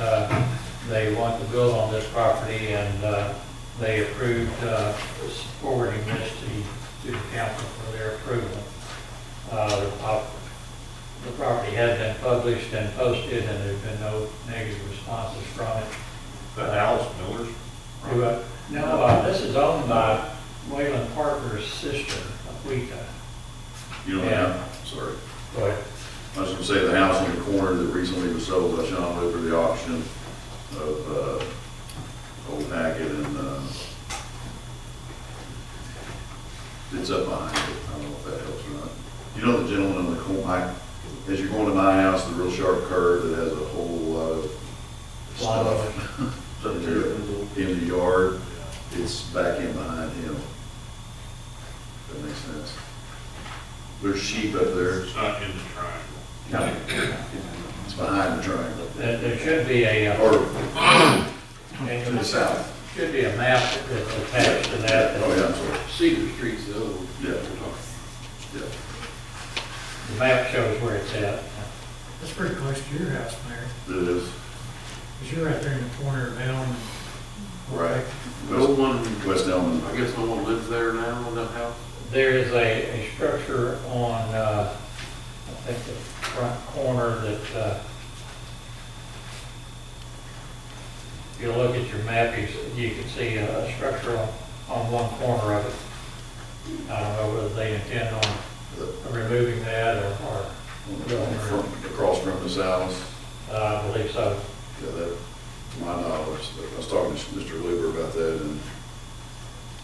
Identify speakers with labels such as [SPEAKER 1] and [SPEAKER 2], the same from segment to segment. [SPEAKER 1] uh, they want to build on this property, and uh, they approved uh, forwarding this to, to the council for their approval. Uh, The pop- the property has been published and posted, and there's been no negative responses from it.
[SPEAKER 2] The house, Miller's.
[SPEAKER 1] Do I- No, uh, this is owned by Wayland Parker's sister, Aquita,
[SPEAKER 3] You don't
[SPEAKER 1] Yeah.
[SPEAKER 3] have, sorry.
[SPEAKER 1] but
[SPEAKER 3] I was gonna say the house on the corner that recently was sold by Sean over the auction of, uh, Old Hackett and, uh, it's up behind it. I don't know if that helps or not. You know the gentleman on the corner, as you're going to my house, the real sharp curve that has a whole lot of
[SPEAKER 1] Lot of
[SPEAKER 3] stuff up there in the yard, it's back in behind him. That makes sense. There's sheep up there.
[SPEAKER 2] It's not in the triangle.
[SPEAKER 3] No, It's behind the triangle,
[SPEAKER 1] there there should be a, uh,
[SPEAKER 3] or to the
[SPEAKER 1] and
[SPEAKER 3] south.
[SPEAKER 1] should be a map that's attached to that.
[SPEAKER 3] Oh, yeah, I'm sorry,
[SPEAKER 4] Cedar Street's the other one.
[SPEAKER 3] Yeah.
[SPEAKER 4] we're talking.
[SPEAKER 3] yeah.
[SPEAKER 1] The map shows where it's at.
[SPEAKER 5] That's pretty close to your house, Mayor,
[SPEAKER 3] It is,
[SPEAKER 5] because you're right there in the corner of Elm. and-
[SPEAKER 3] right.
[SPEAKER 4] No one,
[SPEAKER 3] West Elm,
[SPEAKER 4] I guess no one lives there now in that house?
[SPEAKER 1] There is a, a structure on, uh, I think the front corner that, uh, if you look at your map, you, s- you can see a a structure on, on one corner of it. I don't know whether they intend on
[SPEAKER 3] the-
[SPEAKER 1] removing that or, or,
[SPEAKER 3] from- across from the south,
[SPEAKER 1] uh, I believe so.
[SPEAKER 3] yeah, that, my knowledge, I was talking to Mr. Luber about that, and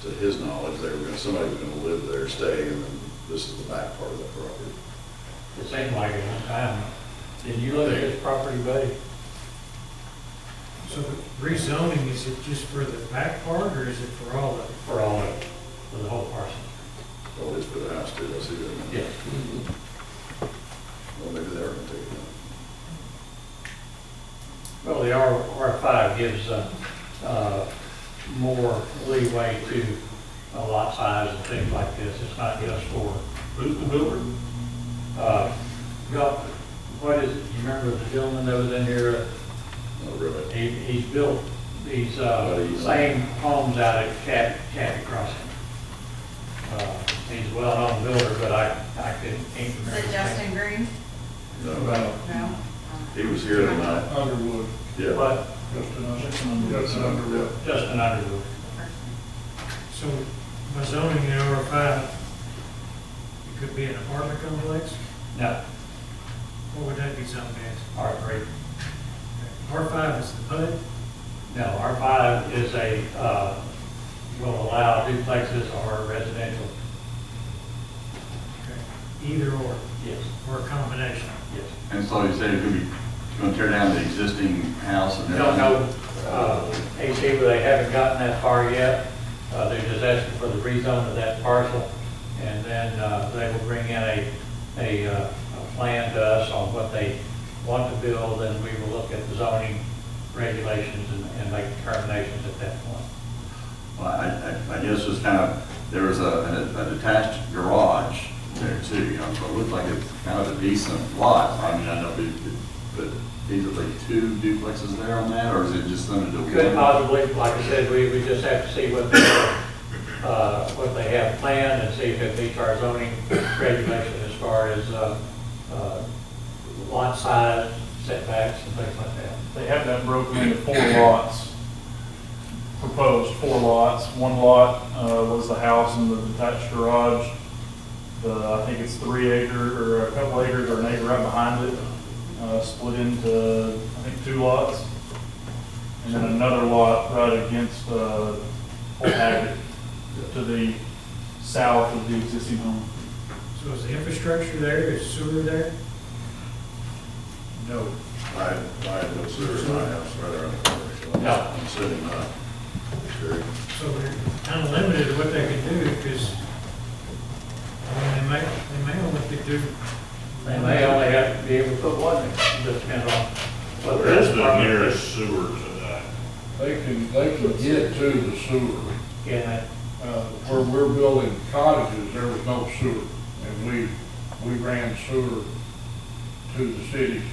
[SPEAKER 3] to his knowledge, they were gonna, somebody was gonna live there, stay, and then this is the back part of that property.
[SPEAKER 1] It seemed like it one time. Did you look at this property, buddy?
[SPEAKER 5] So the rezoning, is it just for the back part, or is it for all of it?
[SPEAKER 1] For all of it, for the whole parcel?
[SPEAKER 3] Oh, it's for the house, too, I see that.
[SPEAKER 1] Yes.
[SPEAKER 3] Well, maybe they were gonna take it
[SPEAKER 1] Well, the R, R5 gives, uh, uh, more leeway to a lot size and things like this. It's not just for,
[SPEAKER 2] Who's the builder?
[SPEAKER 1] uh, go- what is, it? you remember the gentleman that was in here?
[SPEAKER 3] down. Not really.
[SPEAKER 1] He, he's built these,
[SPEAKER 3] What
[SPEAKER 1] uh,
[SPEAKER 3] he's-
[SPEAKER 1] same homes out at Cat, Cat Crossing. Uh, He's a well-known builder, but I, I couldn't, can't
[SPEAKER 6] Is
[SPEAKER 1] remember.
[SPEAKER 6] it
[SPEAKER 1] his name.
[SPEAKER 6] Justin Green?
[SPEAKER 3] No,
[SPEAKER 7] About
[SPEAKER 6] No?
[SPEAKER 3] he was here tonight,
[SPEAKER 7] Underwood,
[SPEAKER 3] yeah.
[SPEAKER 1] But
[SPEAKER 7] Justin Underwood. Justin Underwood.
[SPEAKER 1] Justin Underwood.
[SPEAKER 5] So by zoning in R five, it could be an apartment complex,
[SPEAKER 1] No,
[SPEAKER 5] what would that be zoned as?
[SPEAKER 1] R3.
[SPEAKER 5] R five is the PUD,
[SPEAKER 1] No, R5 is a, uh, will allow duplexes or residential.
[SPEAKER 5] either or,
[SPEAKER 1] Yes,
[SPEAKER 5] or a combination.
[SPEAKER 1] yes.
[SPEAKER 8] And so you said it could be, you're gonna tear down the existing house and then?
[SPEAKER 1] I don't know, uh, AC, but they haven't gotten that far yet. Uh, They're just asking for the rezone of that parcel, and then uh, they will bring in a, a uh, a plan to us on what they want to build, and we will look at the zoning regulations and- and make determinations at that point.
[SPEAKER 8] Well, I, I, I guess it's kind of, there was a, a detached garage there too, you know, so it looked like it's kind of a decent lot. I mean, I know we could put easily two duplexes there on that, or is it just limited to one?
[SPEAKER 1] Could uh, possibly, like I said, we, we just have to see what they, uh, what they have planned and see if it meets our zoning regulation as far as, uh, uh, lot size setbacks and things like that.
[SPEAKER 7] They have that broken into four lots, proposed four lots. One lot uh, was the house and the detached garage. The, I think it's three acre, or a couple acres, or an acre right behind it, uh, split into, I think, two lots. And then another lot right against uh, Old Haggard, to the south of the existing home.
[SPEAKER 5] So is the infrastructure there, is sewer there?
[SPEAKER 3] No. I, I have no sewer in my house right around the corner.
[SPEAKER 1] No.
[SPEAKER 3] I'm sitting, uh, very,
[SPEAKER 5] So they're kind of limited what they can do, because, I mean, they may, they may only could do.
[SPEAKER 1] They may only have to be able to put one, it just depends on what
[SPEAKER 2] Where is
[SPEAKER 1] this
[SPEAKER 2] the
[SPEAKER 1] department
[SPEAKER 2] nearest sewer to that?
[SPEAKER 9] They can, they can get to the sewer.
[SPEAKER 1] can,
[SPEAKER 9] Uh, Where we're building cottages, there was no sewer, and we, we ran sewer to the city's